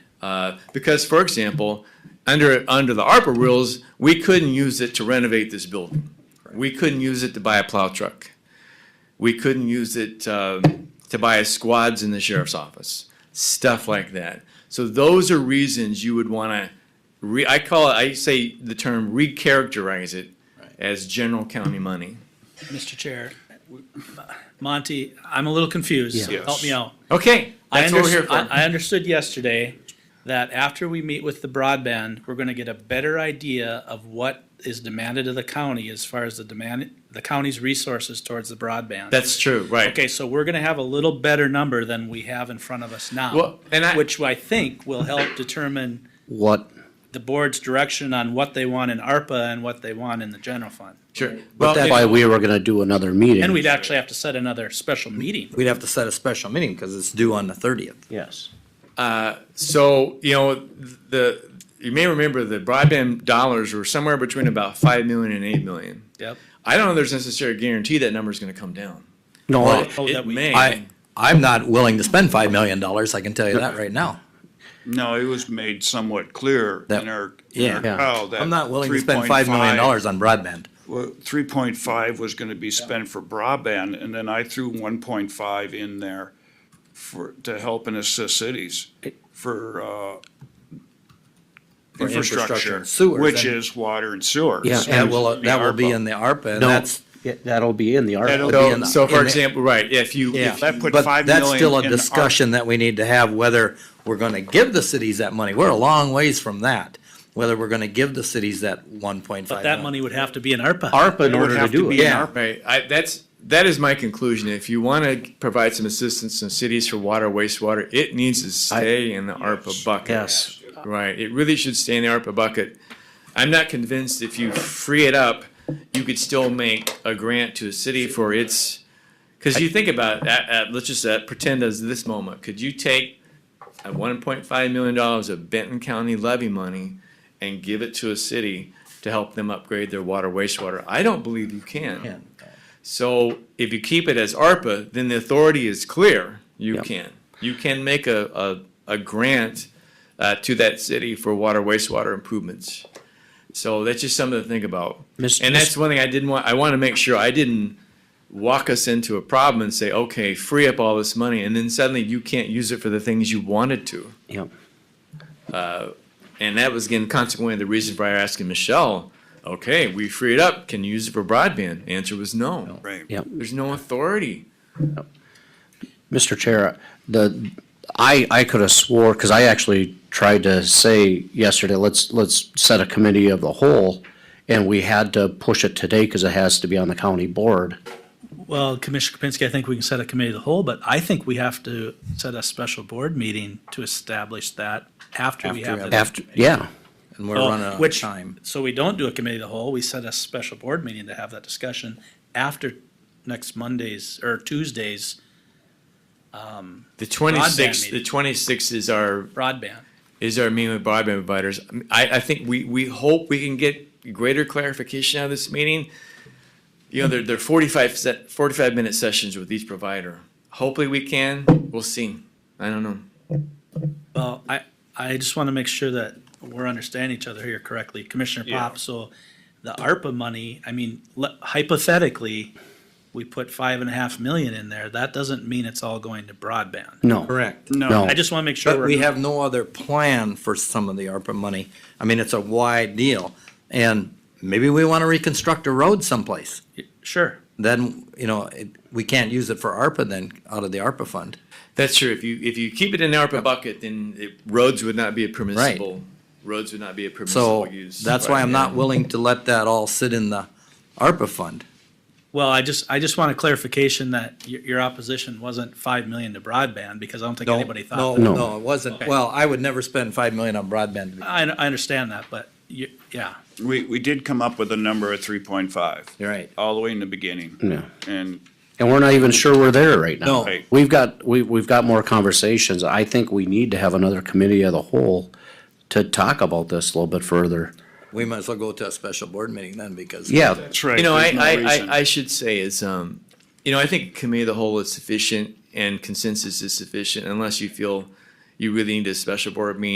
Uh, because, for example, under, under the ARPA rules, we couldn't use it to renovate this building. We couldn't use it to buy a plow truck. We couldn't use it um, to buy squads in the sheriff's office, stuff like that. So those are reasons you would want to, re, I call it, I say the term recharacterize it as general county money. Mr. Chair, Monty, I'm a little confused. Yeah. Help me out. Okay, I that's what we're here understood, for. I I understood yesterday that after we meet with the broadband, we're gonna get a better idea of what is demanded of the county as far as the demand, the county's resources towards the broadband. That's true, right. Okay, so we're gonna have a little better number than we have in front of us now, Well, and I- which I think will help determine What, the board's direction on what they want in ARPA and what they want in the general fund. Sure. but Well, that's it- why we were gonna do another meeting. And we'd actually have to set another special meeting. We'd have to set a special meeting because it's due on the thirtieth. Yes. So, you know, the, you may remember the broadband dollars were somewhere between about five million and eight million. Yep. I don't know if there's necessarily a guarantee that number's gonna come down. No, I- Oh, It that we- may. I, I'm not willing to spend five million dollars, I can tell you that right now. No, it was made somewhat clear That- in our, in yeah. our Yeah. call that. I'm not willing to spend five million dollars on broadband. Three point five was gonna be spent for broadband, and then I threw one point five in there for, to help and assist cities for, uh, infrastructure infrastructure, and sewers, which and- is water and sewer. Yeah, So That will, it's that will be ARPA. in the ARPA and No. that's, Yeah, that'll be in the That'll- article. be in So, the- so for in the- example, right, if you, yeah. if That put But five that's million still a in the ARPA. discussion that we need to have, whether we're gonna give the cities that money. We're a long ways from that. Whether we're gonna give the cities that one point five. But that money would have to be in ARPA. ARPA in It would order to have to do be it. in Yeah. ARPA. Right, I, that's, that is my conclusion. If you want to provide some assistance in cities for water, wastewater, it needs to stay in the ARPA bucket. Yes. Right, it really should stay in the ARPA bucket. I'm not convinced if you free it up, you could still make a grant to a city for its, because you think about, that. uh, let's just uh, pretend as this moment, could you take at one point five million dollars of Benton County levy money and give it to a city to help them upgrade their water wastewater? I don't believe you can. So if you keep it as ARPA, then the authority is clear, you Yep. can. You can make a, a, a grant uh, to that city for water wastewater improvements. So that's just something to think about. Mis- And that's one thing I didn't want, I want to make sure I didn't walk us into a problem and say, okay, free up all this money, and then suddenly you can't use it for the things you wanted to. Yep. And that was again consequently the reason for asking Michelle, okay, we free it up, can you use it for broadband? Answer was no. Right. Yep. There's no authority. Mr. Chair, the, I, I could have swore, because I actually tried to say yesterday, let's, let's set a committee of the whole, and we had to push it today because it has to be on the county board. Well, Commissioner Kapinski, I think we can set a committee of the whole, but I think we have to set a special board meeting to establish that after we After we have. have- the- After, yeah, and we're Oh, running out of which- time. So we don't do a committee of the whole, we set a special board meeting to have that discussion after next Monday's or Tuesday's The twenty-sixth, meeting. the twenty-sixth is our broadband. is our meeting with broadband providers. I, I think we, we hope we can get greater clarification out of this meeting. You know, they're, they're forty-five, se- forty-five minute sessions with each provider. Hopefully we can, we'll see. I don't know. Well, I, I just want to make sure that we're understanding each other here correctly. Commissioner Yeah. Pop, so the ARPA money, I mean, le- hypothetically, we put five and a half million in there. That doesn't mean it's all going to broadband. no. Correct. No. I just want to make sure But we we're, have no other plan for some of the ARPA money. I mean, it's a wide deal. And maybe we want to reconstruct a road someplace. sure. Then, you know, it, we can't use it for ARPA then, out of the ARPA fund. That's true. If you, if you keep it in the ARPA bucket, then it, roads would not be a permissible, roads would not be a So permissible use. that's why I'm not Yeah. willing to let that all sit in the ARPA fund. Well, I just, I just want a clarification that your, your opposition wasn't five million to broadband because I don't think No, anybody no, thought. No. that. no, it wasn't. Okay. Well, I would never spend five million on broadband. to be- I, I understand that, but you, yeah. We, we did come up with a number of three point five. You're right. All the way in the beginning. Yeah. And And we're not even sure we're there right now. No. Right. We've got, we, we've got more conversations. I think we need to have another committee of the whole to talk about this a little bit further. We might as well go to a special board meeting then because. Yeah, that's right. You know, I, there's no I, reason. I, I should say is, um, you know, I think committee of the whole is sufficient and consensus is sufficient unless you feel you really need a special board meeting